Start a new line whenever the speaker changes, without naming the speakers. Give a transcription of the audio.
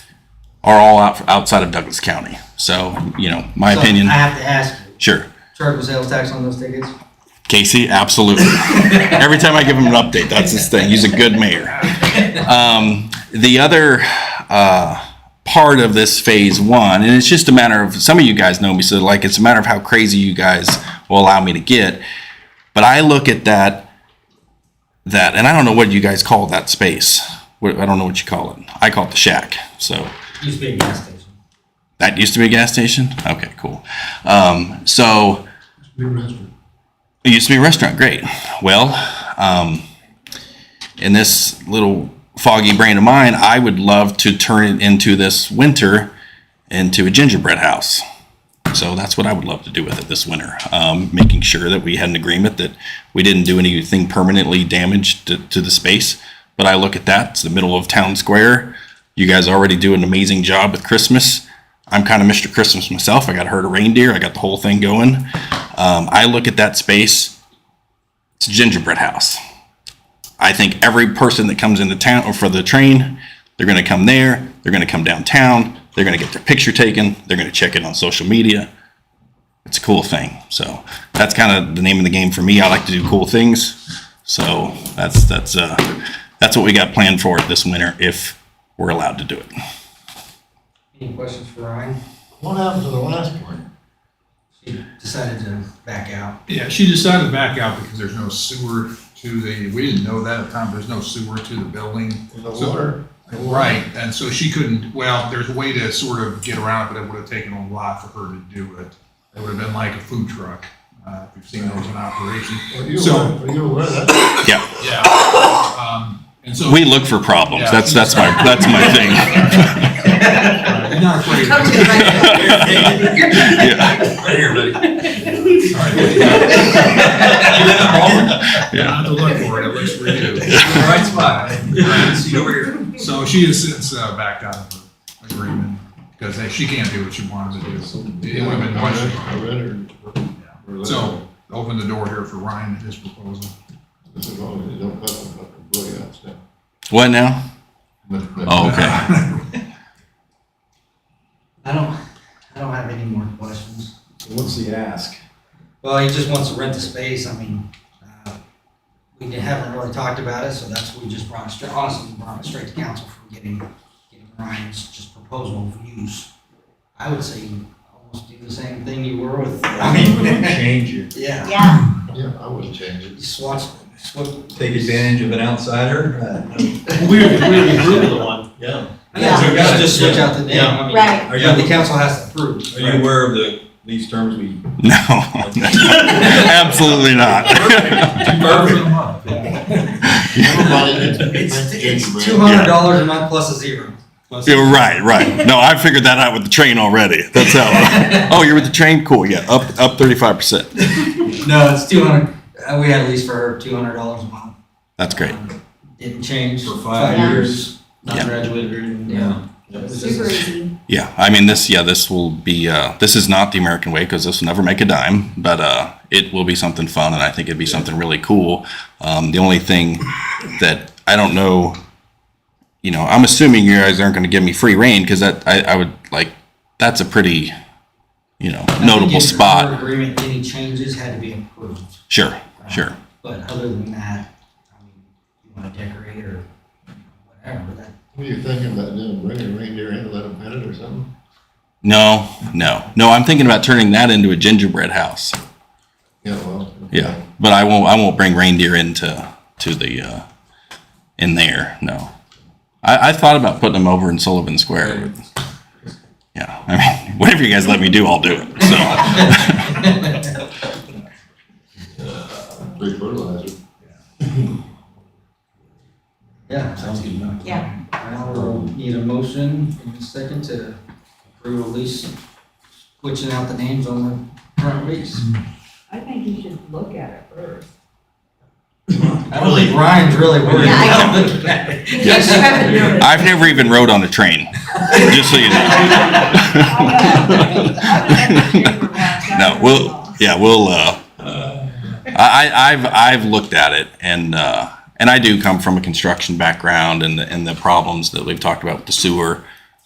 are all out, outside of Douglas County. So, you know, my
So,
opinion,
I have to ask you,
sure.
chargeable sales tax on those tickets?
Casey, absolutely. Every time I give him an update, that's his thing. He's a good mayor. Um, the other uh, part of this phase one, and it's just a matter of some of you guys know me, so like it's a matter of how crazy you guys will allow me to get. But I look at that, that, and I don't know what you guys call that space. What- I don't know what you call it. I call it the shack. So
Used to be a gas station.
that used to be a gas station. Okay, cool. Um, so it used to be a restaurant. Great. Well, um, in this little foggy brain of mine, I would love to turn it into this winter into a gingerbread house. So that's what I would love to do with it this winter. Um, making sure that we had an agreement that we didn't do anything permanently damaged to, to the space. But I look at that, it's the middle of town square. You guys already do an amazing job with Christmas. I'm kind of Mr. Christmas myself. I got a herd of reindeer, I got the whole thing going. Um, I look at that space, it's a gingerbread house. I think every person that comes into town or for the train, they're going to come there, they're going to come downtown, they're going to get their picture taken, they're going to check it on social media. It's a cool thing. So that's kind of the name of the game for me. I like to do cool things. So that's that's uh, that's what we got planned for this winter if we're allowed to do it.
Any questions for Ryan?
What happened to the last one?
She decided to back out.
Yeah, she decided to back out because there's no sewer to the, we didn't know that at the time, there's no sewer to the building.
The
So-
water?
Right, and so she couldn't, well, there's a way to sort of get around it, but it would have taken a lot for her to do it. It would have been like a food truck, uh, if you've seen those in operation.
Are you
So-
aware, are you aware of that?
Yeah,
Yeah. Um, And so.
we look for problems.
Yeah.
That's that's my that's my thing.
You're not afraid of it.
Yeah.
All right, what do you have? You don't have to look for it, it looks for you.
Right spot. Seat over here.
So she has since uh, backed out of the agreement because she can't do what she wanted to do. It would have been much,
I read it.
Yeah. So, open the door here for Ryan and his proposal.
This is all, they don't have them, but the boy outside.
What now?
But- but-
Oh, okay.
I don't, I don't have any more questions.
What's the ask?
Well, he just wants to rent the space, I mean, uh, we haven't really talked about it, so that's, we just brought it straight, honestly, we brought it straight to council for getting, getting Ryan's just proposal of use. I would say almost do the same thing you were with, I mean,
Change it.
yeah,
Yeah,
Yeah, I wouldn't change
you
it.
swatched, swip.
Take advantage of an outsider?
We were, we were really the one.
Yeah.
Yeah.
Just- Just switch out the name, I mean,
right.
Are you,
but the
are
council has to approve.
you aware of the, these terms we?
No, absolutely not.
Everybody gets-
It's,
gets
it's
red.
two hundred dollars a month plus a zero.
You're right, right. No, I figured that out with the train already. That's how. oh, you're with the train? Cool. Yeah, up up 35 percent.
No, it's two hundred, uh, we had a lease for her, two hundred dollars a month.
That's great.
Um, Didn't change.
For five
years. Not
Yeah.
graduated or anything.
Yeah.
Super easy.
Yeah, I mean this. Yeah, this will be. Uh, this is not the American way because this will never make a dime. But uh, it will be something fun, and I think it'd be something really cool. Um, the only thing that I don't know, you know, I'm assuming you guys aren't going to give me free reign because that I, I would like. That's a pretty, you know,
I think
notable
in
spot.
our Agreement, any changes had to be approved,
Sure, sure.
but other than that, I mean, you wanna decorate or whatever, that.
What are you thinking about doing, bring a reindeer in and let them pet it or something?
No, no, no. I'm thinking about turning that into a gingerbread house.
Yeah, well.
Yeah, but I won't. I won't bring reindeer into to the uh, in there. No, I, I thought about putting them over in Sullivan Square. but- yeah, I mean, whatever you guys let me do, I'll do it. So
Free fertilizer.
Yeah, sounds good enough.
Yeah.
Now we'll need a motion in a second to approve a lease, switching out the names on the current lease.
I think you should look at it first.
I don't think Ryan's really worried
Yeah, I
about looking at it.
Yes.
You haven't noticed.
I've never even rode on a train. Just so you know. no, we'll yeah, we'll. Uh, I, I- I've I've looked at it and uh, and I do come from a construction background and the, and the problems that we've talked about with the sewer.